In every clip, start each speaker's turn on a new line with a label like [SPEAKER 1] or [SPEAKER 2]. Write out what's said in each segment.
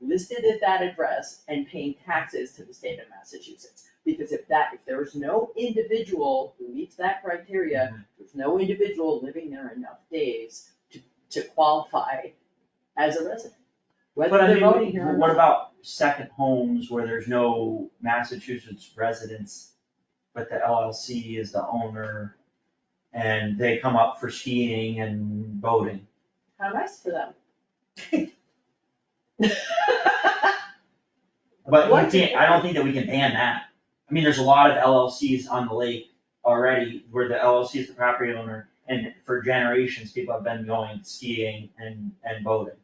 [SPEAKER 1] listed at that address and paying taxes to the state of Massachusetts. Because if that, if there's no individual who meets that criteria,
[SPEAKER 2] Mm-hmm.
[SPEAKER 1] there's no individual living there enough days to, to qualify as a resident. Whether
[SPEAKER 2] But I
[SPEAKER 1] they're
[SPEAKER 2] mean,
[SPEAKER 1] voting here or
[SPEAKER 2] what
[SPEAKER 1] not.
[SPEAKER 2] about second homes where there's no Massachusetts residents, but the LLC is the owner? And they come up for skiing and boating.
[SPEAKER 1] How nice for them.
[SPEAKER 2] But
[SPEAKER 1] What?
[SPEAKER 2] we can't, I don't think that we can ban that. I mean, there's a lot of LLCs on the lake already where the LLC is the property owner. And for generations, people have been going skiing and, and boating.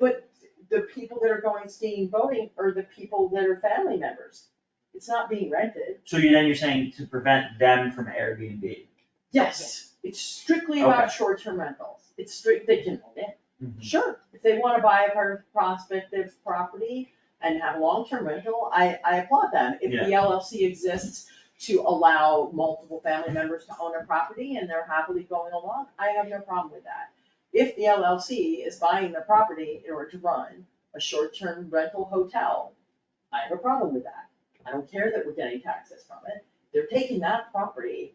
[SPEAKER 1] But the people that are going skiing, voting are the people that are family members. It's not being rented.
[SPEAKER 2] So you then you're saying to prevent them from Airbnb.
[SPEAKER 1] Yes, it's strictly about
[SPEAKER 2] Okay.
[SPEAKER 1] short-term rentals. It's strict, they can own it.
[SPEAKER 2] Mm-hmm.
[SPEAKER 1] Sure, if they wanna buy a part of prospective property and have long-term rental, I, I applaud them. If the LLC exists to allow multiple family members to own a property and they're happily going along, I have no problem with that. If the LLC is buying the property in order to run a short-term rental hotel, I have a problem with that. I don't care that we're getting taxes from it. They're taking that property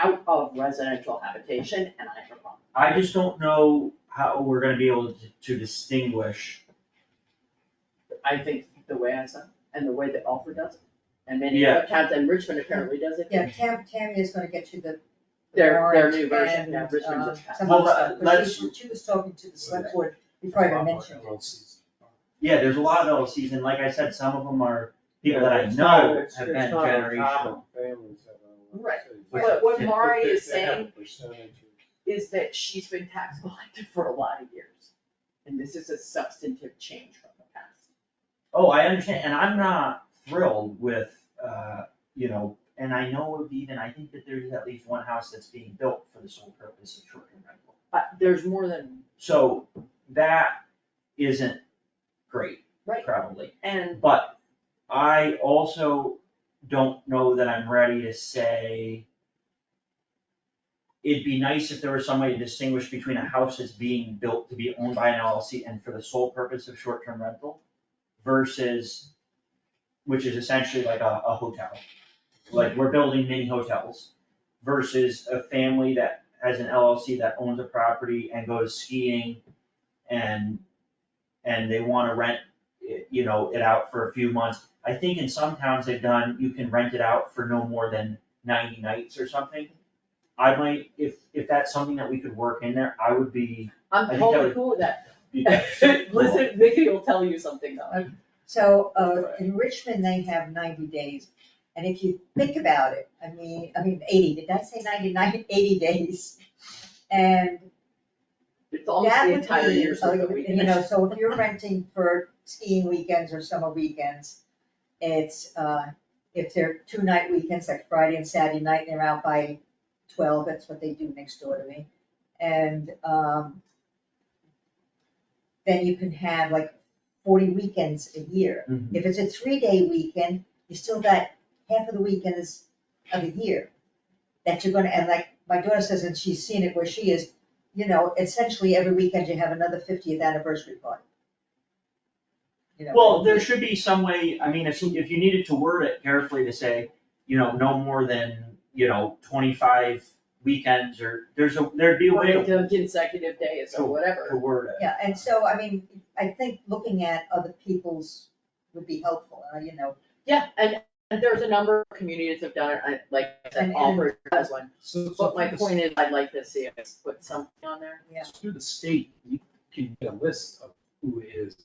[SPEAKER 1] out of residential habitation and I have a problem.
[SPEAKER 2] I just don't know how we're gonna be able to- to distinguish.
[SPEAKER 1] I think the way I said, and the way that Alfred does it, and many
[SPEAKER 2] Yeah.
[SPEAKER 1] other towns, and Richmond apparently does it.
[SPEAKER 3] Yeah, Tam, Tammy is gonna get you the. the
[SPEAKER 1] Their, their
[SPEAKER 3] warrant
[SPEAKER 1] new version,
[SPEAKER 3] and,
[SPEAKER 1] yeah, Richmond's
[SPEAKER 3] um,
[SPEAKER 1] is passed.
[SPEAKER 3] Some other
[SPEAKER 2] Well,
[SPEAKER 3] stuff, but
[SPEAKER 2] let's-
[SPEAKER 3] she, she was talking to the select board before I even mentioned it.
[SPEAKER 2] Yeah, there's a lot of LLCs and like I said, some of them are people that I know have been generational.
[SPEAKER 1] Right.
[SPEAKER 2] But
[SPEAKER 1] But what Mari is
[SPEAKER 4] They have a
[SPEAKER 1] saying
[SPEAKER 4] percentage of-
[SPEAKER 1] is that she's been tax collected for a lot of years, and this is a substantive change from the past.
[SPEAKER 2] Oh, I understand, and I'm not thrilled with, uh, you know, and I know of even, I think that there's at least one house that's being built for the sole purpose of short-term rental.
[SPEAKER 1] But there's more than,
[SPEAKER 2] So that isn't great,
[SPEAKER 1] right,
[SPEAKER 2] probably.
[SPEAKER 1] and
[SPEAKER 2] But I also don't know that I'm ready to say. It'd be nice if there was some way to distinguish between a house that's being built to be owned by an LLC and for the sole purpose of short-term rental versus, which is essentially like a, a hotel. Like, we're building mini hotels versus a family that has an LLC that owns a property and goes skiing and, and they wanna rent it- you know, it out for a few months. I think in some towns they've done, you can rent it out for no more than ninety nights or something. I might, if, if that's something that we could work in there, I would be. I
[SPEAKER 1] I'm
[SPEAKER 2] think
[SPEAKER 1] totally
[SPEAKER 2] that
[SPEAKER 1] cool with that.
[SPEAKER 2] be-
[SPEAKER 1] Listen, Vicky will tell you something though.
[SPEAKER 3] So, uh, in Richmond, they have ninety days, and if you think about it, I mean, I mean, eighty, did I say 90? 90 80 days? And
[SPEAKER 1] It's almost
[SPEAKER 3] That
[SPEAKER 1] the
[SPEAKER 3] would
[SPEAKER 1] entire
[SPEAKER 3] be,
[SPEAKER 1] year's
[SPEAKER 3] uh,
[SPEAKER 1] worth of
[SPEAKER 3] You know,
[SPEAKER 1] weekends.
[SPEAKER 3] so if you're renting for skiing weekends or summer weekends, it's, uh, if they're two night weekends, like Friday and Saturday night, and they're out by twelve, that's what they do next door to me. And, um, then you can have like forty weekends a year.
[SPEAKER 2] Mhm.
[SPEAKER 3] If it's a three day weekend, you still got half of the weekends of the year that you're gonna, and like my daughter says, and she's seen it where she is, you know, essentially every weekend you have another fiftieth anniversary party. You know,
[SPEAKER 2] Well, there should be some way, I mean, if, if you needed to word it carefully to say, you know, no more than, you know, twenty-five weekends or, there's a, there'd be a way
[SPEAKER 1] Or
[SPEAKER 2] to
[SPEAKER 1] the consecutive days or
[SPEAKER 2] to
[SPEAKER 1] whatever.
[SPEAKER 2] word it.
[SPEAKER 3] Yeah, and so, I mean, I think looking at other people's would be helpful, uh, you know,
[SPEAKER 1] Yeah, and, and there's a number of communities have done it, I, like, I said,
[SPEAKER 3] And- and-
[SPEAKER 1] Alfred has one.
[SPEAKER 4] So- so
[SPEAKER 1] But my
[SPEAKER 4] through the-
[SPEAKER 1] point is, I'd like to see us put something on there.
[SPEAKER 3] yeah.
[SPEAKER 4] Through the state, you can get a list of who is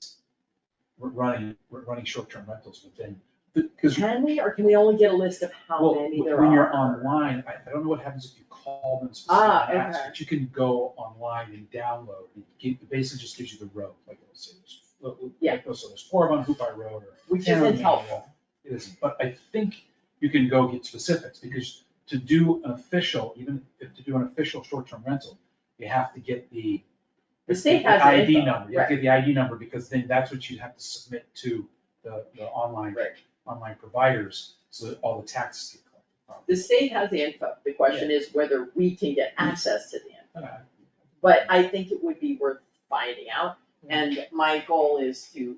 [SPEAKER 4] running, running short-term rentals within, because
[SPEAKER 1] Can we, or can we only get a list of how
[SPEAKER 4] Well,
[SPEAKER 1] many
[SPEAKER 4] w-
[SPEAKER 1] there are?
[SPEAKER 4] When you're online, I, I don't know what happens if you call them specifically,
[SPEAKER 1] Ah,
[SPEAKER 4] and ask,
[SPEAKER 1] okay.
[SPEAKER 4] but you can go online and download, and keep, it basically just gives you the road, like, it'll say, there's- look, look,
[SPEAKER 1] Yeah.
[SPEAKER 4] it'll say there's four on Hoop I Road, or.
[SPEAKER 1] Which
[SPEAKER 4] Yeah.
[SPEAKER 1] isn't helpful.
[SPEAKER 4] It isn't, but I think you can go get specifics, because to do an official, even if to do an official short-term rental, you have to get the.
[SPEAKER 1] The state has the
[SPEAKER 4] ID
[SPEAKER 1] info,
[SPEAKER 4] number, you have to get the ID number, because then that's what you have to submit to the, the online,
[SPEAKER 1] Right.
[SPEAKER 4] online providers, so that all the taxes get collected properly.
[SPEAKER 1] The state has the info, the question is whether we can get access to the info.
[SPEAKER 4] Okay.
[SPEAKER 1] But I think it would be worth finding out, and my goal is to